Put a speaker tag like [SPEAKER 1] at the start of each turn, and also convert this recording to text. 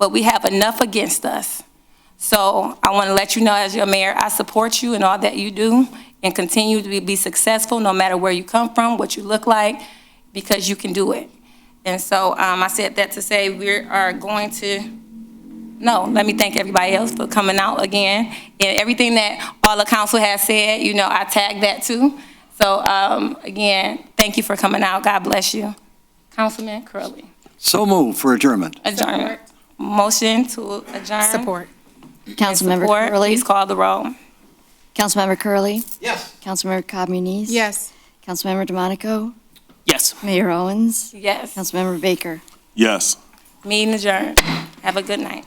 [SPEAKER 1] but we have enough against us. So I want to let you know, as your mayor, I support you in all that you do and continue to be- be successful, no matter where you come from, what you look like, because you can do it. And so um, I said that to say we are going to, no, let me thank everybody else for coming out again. And everything that all the council has said, you know, I tagged that too. So um, again, thank you for coming out. God bless you. Councilman Curley.
[SPEAKER 2] So moved for adjournment.
[SPEAKER 1] Adjourn. Motion to adjourn.
[SPEAKER 3] Support.
[SPEAKER 4] Councilmember
[SPEAKER 1] Support.
[SPEAKER 4] Curley,
[SPEAKER 1] Please call the roll.
[SPEAKER 4] Councilmember Curley,
[SPEAKER 5] Yes.
[SPEAKER 4] Councilmember Cobb Muniz.
[SPEAKER 3] Yes.
[SPEAKER 4] Councilmember DeMonico,
[SPEAKER 6] Yes.
[SPEAKER 4] Mayor Owens,
[SPEAKER 1] Yes.
[SPEAKER 4] Councilmember Baker.
[SPEAKER 7] Yes.
[SPEAKER 1] Meeting adjourned. Have a good night.